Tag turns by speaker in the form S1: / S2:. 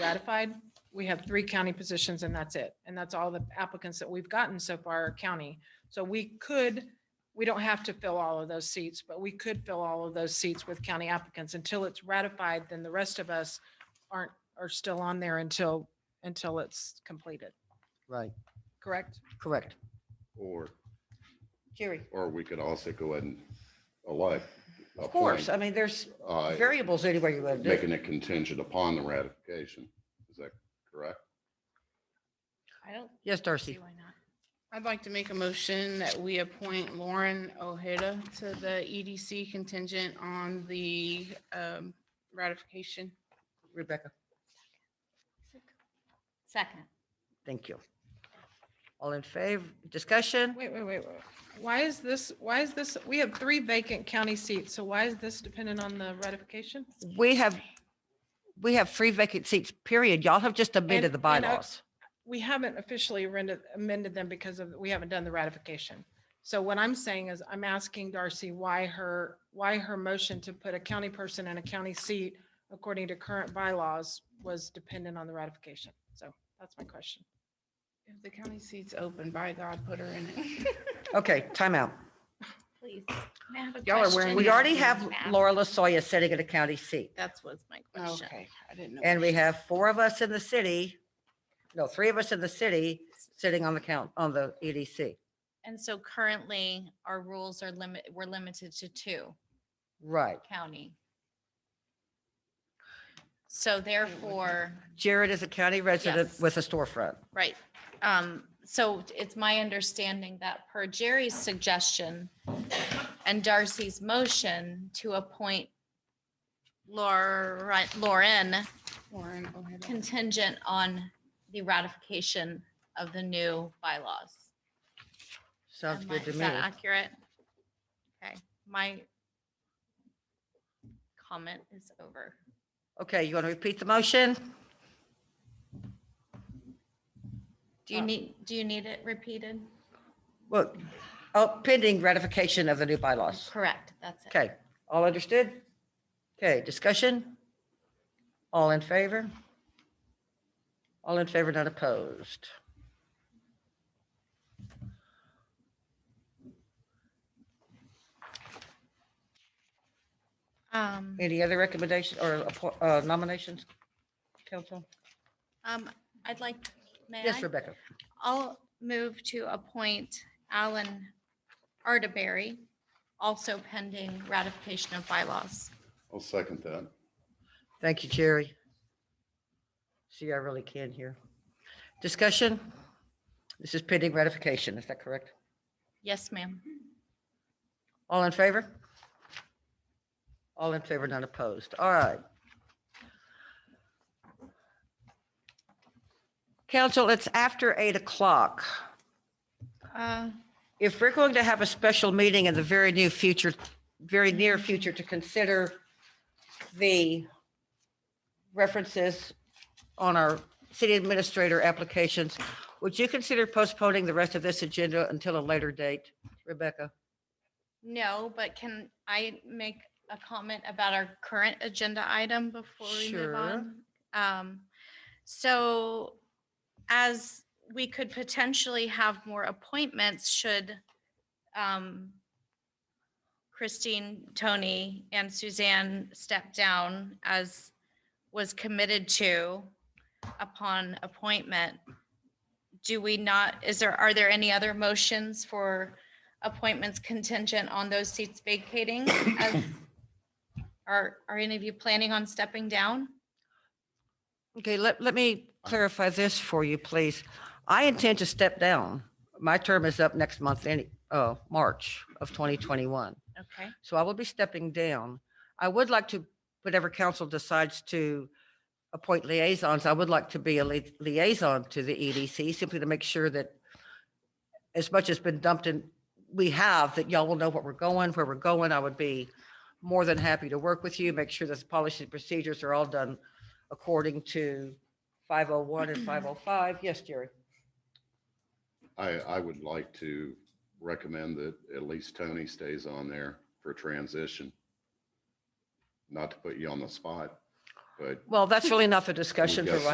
S1: ratified, we have three county positions and that's it. And that's all the applicants that we've gotten so far are county. So we could, we don't have to fill all of those seats, but we could fill all of those seats with county applicants until it's ratified, then the rest of us aren't, are still on there until, until it's completed,
S2: Right,
S1: correct?
S2: correct.
S3: Or,
S4: Jerry,
S3: or we could also go ahead and elect.
S4: of course, I
S3: appoint,
S4: mean, there's
S3: uh,
S4: variables anywhere you want to do.
S3: Making it contingent upon the ratification. Is that correct?
S5: I don't
S2: Yes,
S5: see
S2: Darcy.
S5: why not.
S6: I'd like to make a motion that we appoint Lauren Ojeda to the EDC contingent on the um, ratification.
S2: Rebecca,
S5: Second.
S2: thank you. All in favor, discussion?
S1: Wait, wait, wait, wait. Why is this, why is this, we have three vacant county seats, so why is this dependent on the ratification?
S2: We have, we have three vacant seats, period. Y'all have just amended
S1: And-
S2: the
S1: and I-
S2: bylaws.
S1: we haven't officially amended, amended them because of, we haven't done the ratification. So what I'm saying is I'm asking Darcy why her, why her motion to put a county person in a county seat according to current bylaws was dependent on the ratification. So that's my question.
S6: If the county seat's open, by God, put her in it.
S2: Okay, timeout.
S5: Please. May I have a
S6: Y'all are wearing
S5: question?
S2: We
S6: Yeah.
S2: already have
S5: Ma'am.
S2: Laura LaSoya sitting in a county seat,
S5: That's what's my question.
S6: Oh, Okay, I didn't know.
S2: and we have four of us in the city, no, three of us in the city, sitting on the count, on the E EDC.
S5: And so currently, our rules are limit, we're limited to two
S2: Right.
S5: county. So therefore,
S2: Jared is a county resident
S5: Yes.
S2: with a storefront.
S5: right, um, so it's my understanding that per Jerry's suggestion and Darcy's motion to appoint Laura, Lauren
S6: Lauren Ojeda.
S5: contingent on the ratification of the new bylaws.
S2: Sounds
S5: Am I-
S2: good to
S5: Is
S2: me.
S5: that accurate? Okay, my comment is over.
S2: Okay, you want to repeat the motion?
S5: Do you
S6: Uh,
S5: need, do you need it repeated?
S2: Well, oh, pending ratification of the new bylaws.
S5: Correct, that's it.
S2: Okay, all understood? Okay, discussion? All in favor? All in favor, not opposed?
S5: Um,
S2: Any other recommendations or appo- uh, nominations, council?
S5: um, I'd like, may
S2: Yes,
S5: I?
S2: Rebecca.
S5: I'll move to appoint Alan Artaberry, also pending ratification of bylaws.
S3: I'll second that.
S2: Thank you, Jerry. See, I really can hear. Discussion? This is pending ratification, is that correct?
S5: Yes, ma'am.
S2: All in favor? All in favor, none opposed. All right. Council, it's after eight o'clock.
S6: Uh,
S2: If we're going to have a special meeting in the very new future, very near future to consider the references on our city administrator applications, would you consider postponing the rest of this agenda until a later date? Rebecca?
S5: No, but can I make a comment about our current agenda item before we move
S2: Sure.
S5: on? Um, so as we could potentially have more appointments should um, Christine, Tony, and Suzanne step down as was committed to upon appointment. Do we not, is there, are there any other motions for appointments contingent on those seats vacating? as- Are, are any of you planning on stepping down?
S2: Okay, let, let me clarify this for you, please. I intend to step down. My term is up next month, any, uh, March of 2021.
S5: Okay.
S2: So I will be stepping down. I would like to, whatever council decides to appoint liaisons, I would like to be a lia- liaison to the EDC simply to make sure that as much has been dumped in, we have, that y'all will know what we're going, where we're going. I would be more than happy to work with you, make sure that the policies and procedures are all done according to 501 and 505. Yes, Jerry.
S3: I, I would like to recommend that at least Tony stays on there for transition. Not to put you on the spot, but
S2: Well, that's really not the discussion for
S3: guess
S2: right